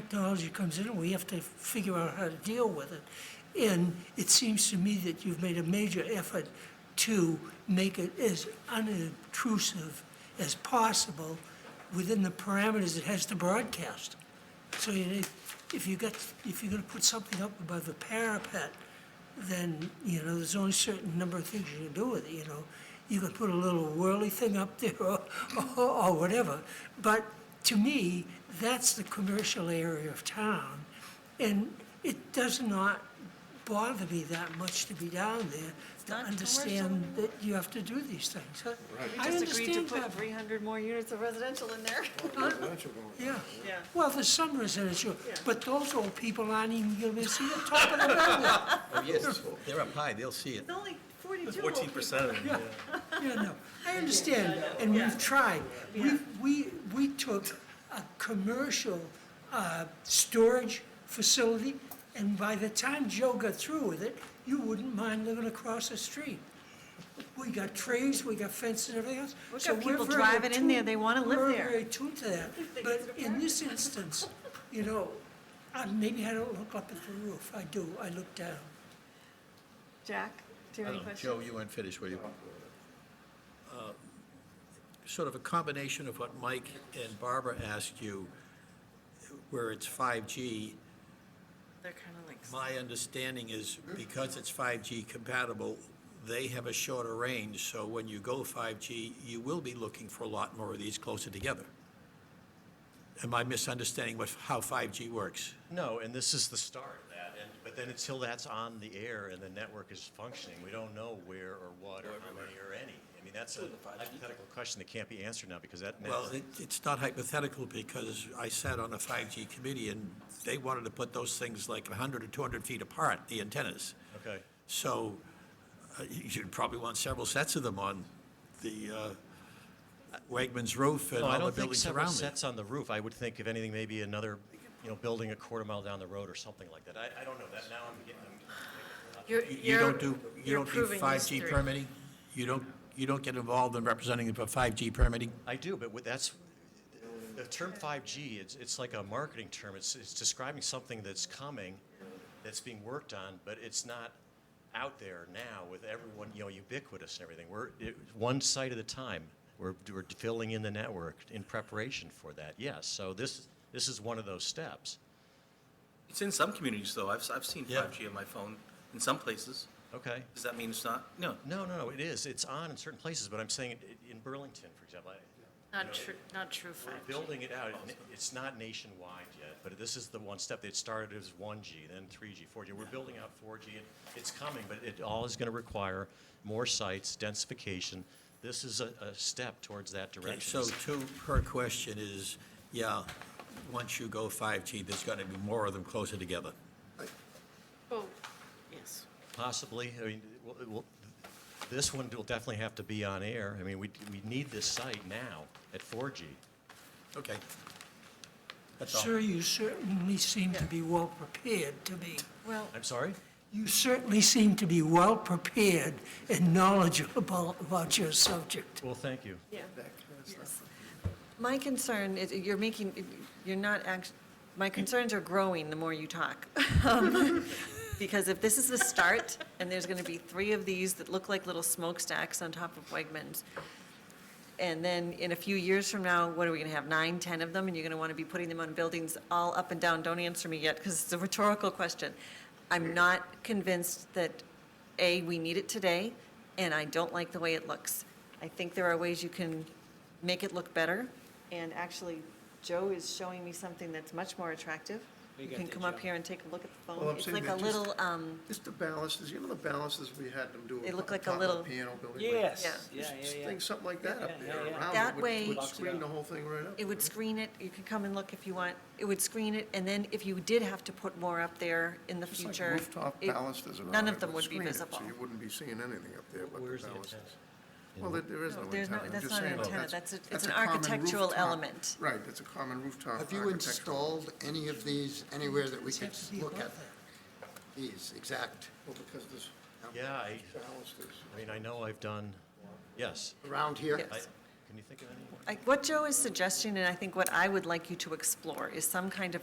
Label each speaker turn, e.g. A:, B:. A: technology comes in, and we have to figure out how to deal with it. And it seems to me that you've made a major effort to make it as unobtrusive as possible within the parameters it has to broadcast. So you, if you got, if you're gonna put something up above the parapet, then, you know, there's only a certain number of things you can do with it, you know. You can put a little whirly thing up there or, or, or whatever. But to me, that's the commercial area of town. And it does not bother me that much to be down there to understand that you have to do these things. I- I
B: Just agreed to
A: understand
B: put
A: that.
B: 300 more units of residential in there.
A: Yeah.
B: Yeah.
A: Well, there's some residential,
B: Yeah.
A: but those old people aren't even gonna be see the top of the building.
C: Oh, yes, they're up high, they'll see it.
B: It's only 42 old
D: Fourteen percent of them, yeah.
A: Yeah, no, I understand, and we've tried. We, we, we took a commercial, uh, storage facility, and by the time Joe got through with it, you wouldn't mind living across the street. We got trees, we got fences and everything else.
B: We've
A: so
B: got
A: we're
B: people
A: very
B: driving in there,
A: attuned-
B: they wanna live
A: We're
B: there.
A: very attuned to that, but in this instance, you know, uh, maybe I don't look up at the roof, I do, I look down.
B: people. Jack, do
C: I don't
B: you have any
C: know,
B: questions?
C: Joe, you weren't finished, were you? Uh, Sort of a combination of what Mike and Barbara asked you, where it's 5G,
B: They're kind of like.
C: my understanding is because it's 5G compatible, they have a shorter range, so when you go 5G, you will be looking for a lot more of these closer together. Am I misunderstanding what, how 5G works?
E: No, and this is the start of that, and, but then until that's on the air and the network is functioning, we don't know where or what or how many or any. I mean, that's a hypothetical question that can't be answered now because that
C: Well,
E: network.
C: it, it's not hypothetical because I sat on a 5G committee and they wanted to put those things like 100 or 200 feet apart, the antennas.
E: Okay,
C: So uh, you- you'd probably want several sets of them on the uh, Wegmans roof and
E: no, I
C: all the
E: don't think
C: buildings
E: several
C: around it.
E: sets on the roof. I would think if anything, maybe another, you know, building a quarter mile down the road or something like that. I, I don't know that now I'm getting.
C: You- You don't do, you don't do 5G permitting? You don't, you don't get involved in representing for 5G permitting?
E: I do, but with- that's, the term 5G, it's, it's like a marketing term. It's, it's describing something that's coming, that's being worked on, but it's not out there now with everyone, you know, ubiquitous and everything. We're, it- one site at a time. We're, we're filling in the network in preparation for that, yes. So this, this is one of those steps.
D: It's in some communities, though. I've, s- I've seen
C: Yeah.
D: 5G on my phone in some places.
E: Okay.
D: Does that mean it's not? No.
E: No, no, no, it is. It's on in certain places, but I'm saying it- in Burlington, for example, I,
F: Not true, not true
E: We're
F: fact.
E: building it out. and It's not nationwide yet, but this is the one step. It started as 1G, then 3G, 4G. We're building out 4G. It- It's coming, but it all is going to require more sites, densification. This is a, a step towards that
C: Okay,
E: direction.
C: So to her question is, yeah, once you go 5G, there's going to be more of them closer together.
F: Oh, yes.
E: Possibly, I mean, well, it will- this one will definitely have to be on air. I mean, we, we need this site now at 4G.
C: Okay. That's all.
A: Sir, you certainly seem to be well-prepared to be.
B: Well,
E: I'm sorry?
A: You certainly seem to be well-prepared and knowledgeable about your subject.
E: Well, thank you.
B: yeah. Yes. My concern is, you're making, you're not act, my concerns are growing the more you talk. Um, Because if this is the start, and there's going to be three of these that look like little smokestacks on top of Wegmans, And then in a few years from now, what are we going to have, nine, 10 of them? And you're going to want to be putting them on buildings all up and down? Don't answer me yet, because it's a rhetorical question. I'm not convinced that, A, we need it today, and I don't like the way it looks. I think there are ways you can make it look better, and actually, Joe is showing me something that's much more attractive. You can come up here and take a look at the
G: Well,
B: phone.
G: I'm
B: It's
G: saying
B: like a
G: that just-
B: little, um,
G: Just the balances, you know the balances we had them do?
B: They look
G: on
B: like a
G: top of
B: little-
G: the Piano building? like-
H: Yes, yeah,
G: Just
H: yeah, yeah.
G: Thing, something like that up
H: Yeah, yeah,
G: there
H: yeah.
G: around it.
B: That
G: would-
B: way-
G: Would
H: Box it
G: screen
H: up.
G: the whole thing right up.
B: It would
G: right?
B: screen it, you could come and look if you want, it would screen it, and then if you did have to put more up there in the
G: Just like
B: future.
G: Rooftop
B: it-
G: balustrades around it.
B: None of them would be
G: screen it,
B: visible.
G: So you wouldn't be seeing anything up there but the
E: Where's the antenna?
G: balustrades. Well, there- there is
B: No,
G: no
B: there's no-
G: antenna. I'm
B: that's
G: just
B: not an
G: saying, well,
B: antenna. That's a- it's
G: that's
B: an
G: common
B: architectural
G: rooftop-
B: element.
G: Right, it's a common rooftop
I: Have you
G: architectural.
I: installed any of these anywhere that we could
A: Have to be
I: look
A: above
I: at? These, exact,
G: Well, because this
E: Yeah, I,
G: balusters.
E: I mean, I know I've done, yes.
I: around here?
E: I- Can you think of any?
B: I- What Joe is suggesting, and I think what I would like you to explore, is some kind of